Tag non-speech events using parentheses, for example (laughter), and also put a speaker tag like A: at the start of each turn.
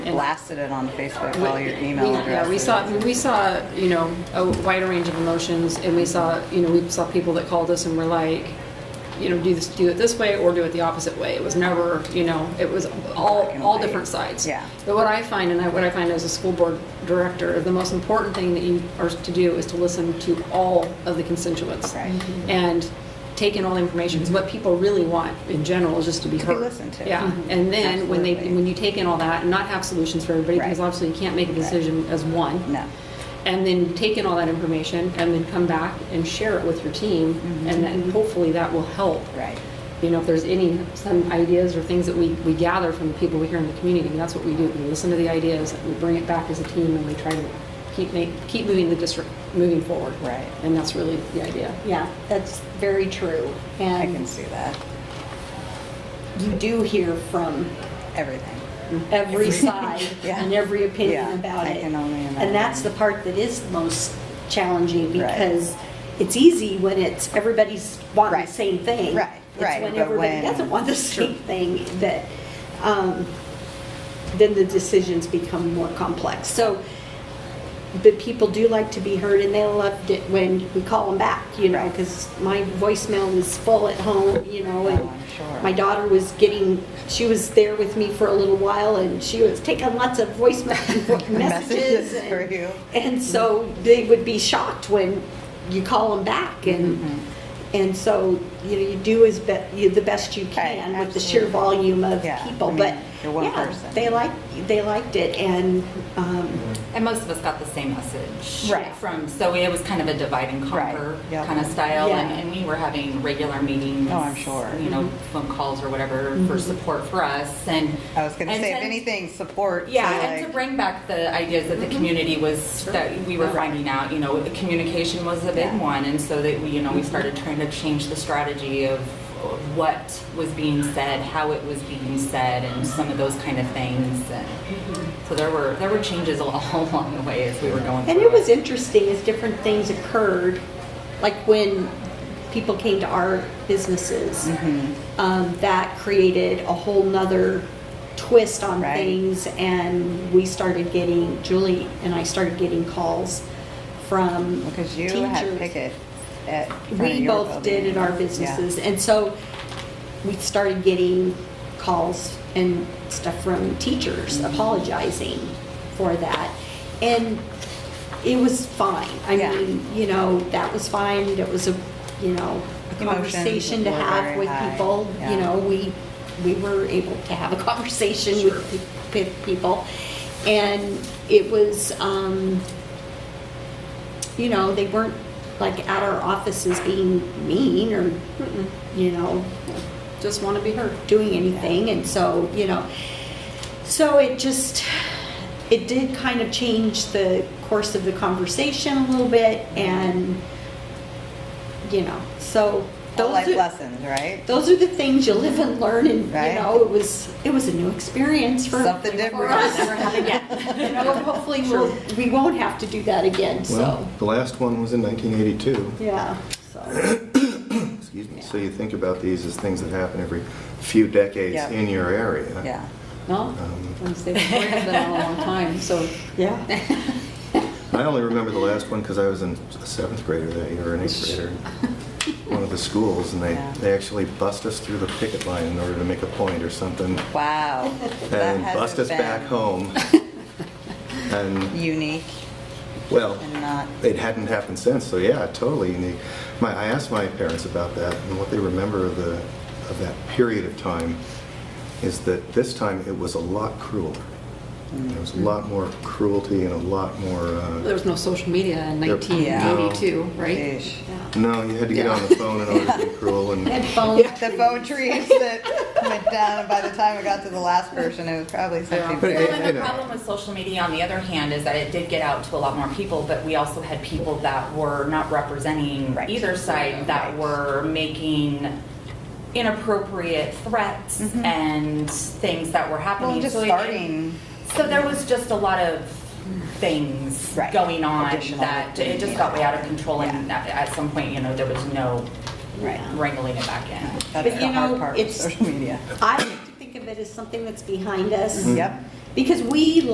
A: blasted it on Facebook,
B: We-
A: all your email
B: we- Yeah, we
A: addresses.
B: saw, we saw, you know, a wider range of emotions, and we saw, you know, we saw people that called us and were like, you know, do this, do it this way or do it the opposite way. It was never, you know, it was all,
A: Black and
B: all
A: white.
B: different sides.
A: Yeah.
B: But what I find, and I- what I find as a school board director, the most important thing that you are to do is to listen to all of the constituents.
A: Right. Mhm.
B: And take in all the information, 'cause what people really want in general is just to be
A: be
B: heard.
A: listened to.
B: Yeah, and then when they,
A: Absolutely.
B: when you take in all that and not have solutions for everybody, because
A: Right.
B: obviously you can't make a decision as one.
A: No.
B: And then take in all that information and then come back and share it with your team, and then hopefully that will help.
A: Mm-hmm. Right.
B: You know, if there's any, some ideas or things that we, we gather from the people we hear in the community, that's what we do. We listen to the ideas, we bring it back as a team, and we try to keep make, keep moving the district, moving forward.
A: Right.
B: And that's really the idea.
C: Yeah, that's very true.
A: I can
C: And
A: see that.
C: you do hear from
A: Everything.
C: every side
A: Mm-hmm. Yeah.
C: and every
A: Yeah,
C: opinion about
A: I
C: it.
A: can only imagine.
C: And that's the part that is most challenging
A: Right.
C: because it's easy when it's, everybody's wanting
A: Right.
C: the same thing.
A: Right, right,
C: It's when
A: but when-
C: everybody doesn't want the same thing that, um, then the decisions become more complex. So, but people do like to be heard and they loved it when we call them back, you know,
A: Right.
C: because my voicemail is full at home, you know, and
A: Oh, I'm sure.
C: my daughter was getting, she was there with me for a little while and she was taking lots of (laughs) voicemail
A: (laughs)
C: messages.
A: Messages
C: and-
A: for you.
C: And so they would be shocked when you call them back and,
A: Mm-hmm.
C: and so, you know, you do as be, you, the best you can with the sheer
A: absolutely.
C: volume of
A: Yeah, I
C: people,
A: mean,
C: but.
A: you're one
C: yeah,
A: person.
C: They liked, they liked it and, um,
D: And most of us got the same message.
A: Right.
D: From, so it was kind of a divide and conquer
A: Right, yep.
D: kind of style.
C: Yeah.
D: And, and we were having regular meetings.
A: Oh, I'm sure. Mm-hmm.
D: You know, phone calls or whatever for support for us and.
A: I was gonna
D: and
A: say, if
D: then-
A: anything, support. to,
D: Yeah, and to
A: like-
D: bring back the ideas that the community was, that we were finding out, you know, the communication was a big
A: Yeah.
D: one. And so that, we, you know, we started trying to change the strategy of what was being said, how it was being said, and some of those kind of things. And So there were, there were changes (laughs) all along the way as we were going through.
C: And it was interesting as different things occurred, like when people came to our businesses,
A: Mm-hmm.
C: um, that created a whole nother twist on
A: Right.
C: things. And we started getting, Julie and I started getting calls from
A: Because you
C: teachers.
A: had Pickett at front of
C: We
A: your
C: both did
A: building.
C: at our
A: Yeah.
C: businesses. And so we started getting calls and stuff from teachers
A: Mm-hmm.
C: apologizing for that. And it was fine. I
A: Yeah.
C: mean, you know, that was fine. It was a, you know, a
A: Emotions
C: conversation to
A: were
C: have
A: very
C: with
A: high.
C: people.
A: Yeah.
C: You know, we, we were able to have a (laughs) conversation with, pe- with people. And it was, um, you know, they weren't like at our offices being mean or, you know,
B: Just want to be heard.
C: doing anything. And so, you know, so it just, it did kind of change the course of the conversation a little bit and, you know, so.
A: All
C: those
A: life
C: are-
A: lessons, right?
C: Those are the things you live and learn and,
A: Right.
C: you know, it was, it was a new experience for.
A: Something
C: for
A: different.
C: us.
D: Never happened again.
C: (laughs) You know, and hopefully we'll, we won't have to do that again, so,
E: Well, the last one was in 1982,
C: yeah, so.
E: excuse me. So you think about these as things that happen every few decades
A: Yeah.
E: in your area.
A: (laughs) Yeah.
B: No, I'm saying, it's been a long time, so.
C: (laughs) Yeah.
E: I only remember the last one because I was in a seventh grader that year, or an eighth
A: (laughs)
E: grader, one of the schools, and they,
A: Yeah.
E: they actually bust us through the picket line in order to make a point or something,
A: Wow. That
E: and
A: had to
E: bust
A: have
E: us back
A: been (laughs)
E: home. And,
A: Unique
E: well,
A: and not,
E: it hadn't happened since, so yeah, totally unique. My, I asked my parents about that, and what they remember of the, of that period of time is that this time it was a lot crueler. There was a lot more cruelty and a lot more,
B: There
E: uh,
B: was no social media in
E: There-
B: 1982, right?
A: Sheesh.
E: no, you had to get on the phone in order to be cruel, and
C: Headphones.
A: The phone trees that went down, and by the time it got to the last person, it was probably something.
E: But
A: very-
E: it-
D: Well, and the problem with social media, on the other hand, is that it did get out to a lot more people, but we also had people that were not representing
A: Right.
D: either side, that
A: Right.
D: were making inappropriate threats and things that were
A: Mm-hmm. Well,
D: happening.
A: just
D: So it-
A: starting,
D: So there was just a lot of things
A: Right.
D: going on
A: Additional
D: that it just got way out of control, and at at some point, you know, there was no
C: Right.
D: wrangling it back in.
A: that's
C: But
A: the
C: you
A: hard
C: know,
A: part with
C: it's-
A: social media.
C: I like to think of it as something that's behind us.
A: Yep.
C: Because we